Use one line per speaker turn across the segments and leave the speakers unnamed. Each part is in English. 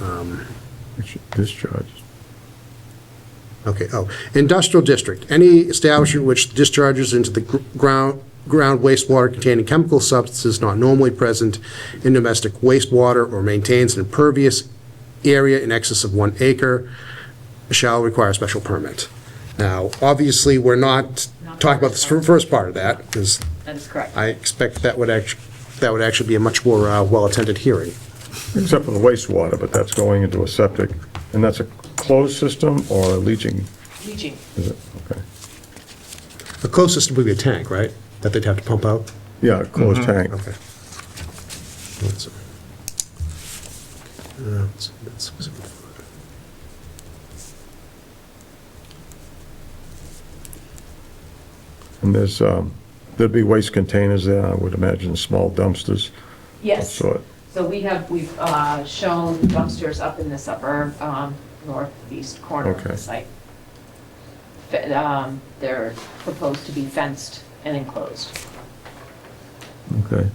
um,
Discharge.
Okay, oh, industrial district, any establishment which discharges into the gr- ground, ground wastewater containing chemical substances not normally present in domestic wastewater or maintains an impervious area in excess of one acre shall require a special permit. Now, obviously, we're not talking about the first part of that, because
That is correct.
I expect that would act, that would actually be a much more uh, well-attended hearing.
Except for the wastewater, but that's going into a septic, and that's a closed system or a leaching,
Leaching.
is it? Okay.
The closest would be a tank, right, that they'd have to pump out?
Yeah, a closed tank.
Okay. That's- uh, that's- that's-
And there's, um, there'd be waste containers there, I would imagine, small dumpsters.
Yes.
So-
So we have, we've uh, shown dumpsters up in this upper um, northeast corner of
Okay.
the site. Fe- um, They're proposed to be fenced and enclosed.
Okay.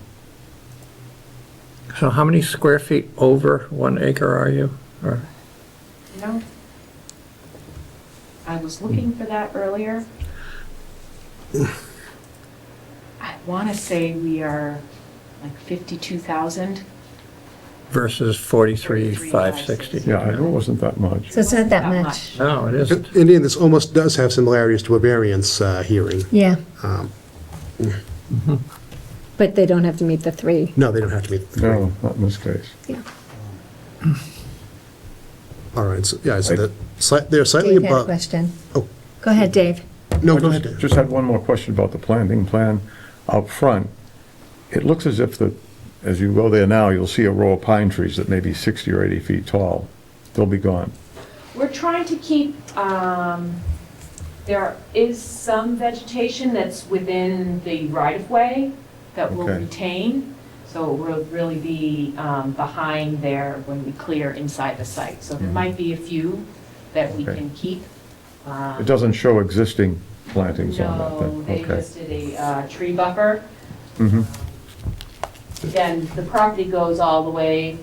So how many square feet over one acre are you? Or,
You know? I was looking for that earlier. I want to say we are like 52,000.
versus 43,560?
Yeah, I know it wasn't that much.
So it's not that much.
No, Oh, it isn't.
And then this almost does have similarities to a variance uh, hearing.
Yeah,
Um,
but they don't have to meet the three.
No, they don't have to meet. the-
No, not in this case.
Yeah.
All right, so, yeah, so that, slight- they're slightly
Dave had a
above.
question.
Oh,
Go ahead, Dave.
no, go
I
ahead.
just- Just had one more question about the planting plan up front. It looks as if the, as you go there now, you'll see a row of pine trees that may be 60 or 80 feet tall. They'll be gone.
We're trying to keep, um, there is some vegetation that's within the right-of-way that will
Okay.
retain, so it will really be um, behind there when we clear inside the site. So there might be a few that we
Mm-hmm. Okay.
can keep. Um,
It doesn't show existing plantings on that
No, they
thing. Okay.
listed a uh, tree buffer.
Mhm.
Again, the property goes all the way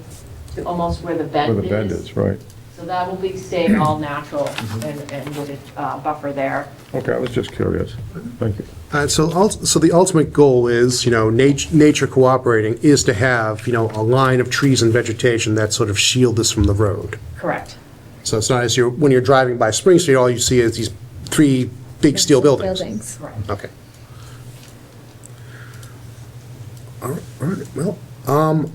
to almost where the
Where
bend
the bend is, right.
so that will be staying all natural and, and with a uh, buffer there.
Okay, I was just curious. Thank you.
Uh, so, ul- so the ultimate goal is, you know, nat- nature cooperating is to have, you know, a line of trees and vegetation that sort of shield us from the road.
Correct.
So it's not as you're, when you're driving by Spring Street, all you see is these three big steel buildings.
Buildings.
Correct.
Okay. All right, all right, well, um,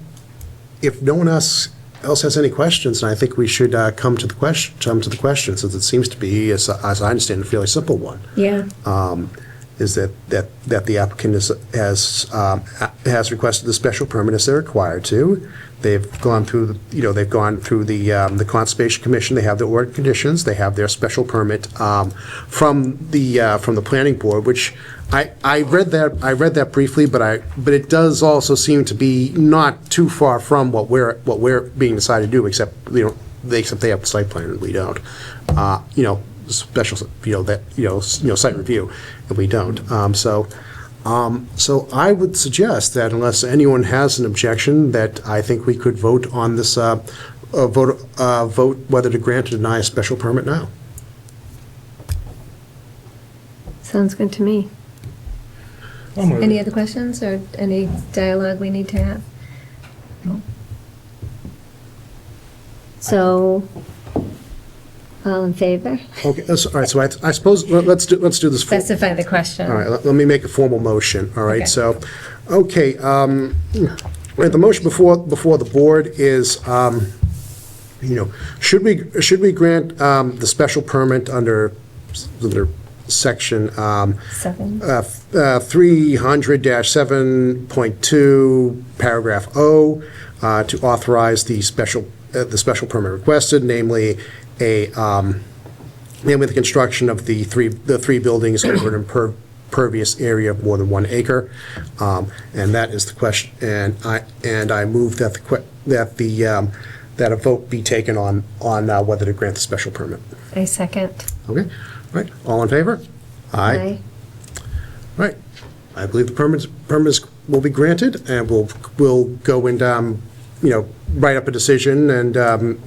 if no one else, else has any questions, and I think we should, uh, come to the question, come to the question, since it seems to be, as, as I understand, a fairly simple one,
Yeah,
um, is that, that, that the applicant is, has, um, a- has requested the special permit as they're required to. They've gone through, the- you know, they've gone through the, um, the Conservation Commission, they have their order conditions, they have their special permit, um, from the, uh, from the planning board, which I, I read that, I read that briefly, but I, but it does also seem to be not too far from what we're, what we're being decided to do, except, you know, they, except they have the site plan and we don't. Uh, you know, special, you know, that, you know, s- you know, site review, and we don't. Um, so, um, so I would suggest that unless anyone has an objection, that I think we could vote on this, uh, uh, vote, uh, vote whether to grant or deny a special permit now.
sounds good to me. Any other questions or any dialogue we need to have? So, all in favor?
Okay, that's, all right, so I, I suppose, let- let's do, let's do this. for-
Specify the question.
All right, let- let me make a formal motion, all
Okay.
right? So, okay, um, right, the motion before, before the board is, um, you know, should we, should we grant um, the special permit under, under section um,
Seven.
uh, f- uh, 300-7.2, paragraph O, uh, to authorize the special, uh, the special permit requested, namely a, um, namely the construction of the three, the three buildings over an imper- impervious area of more than one acre. Um, And that is the question, and I, and I move that the, que- that the, um, that a vote be taken on, on uh, whether to grant the special permit.
I second.
Okay? All right, all in favor?
Aye.
Right. I believe the permits, permits will be granted, and we'll, we'll go and, um, you know, write up a decision and, um,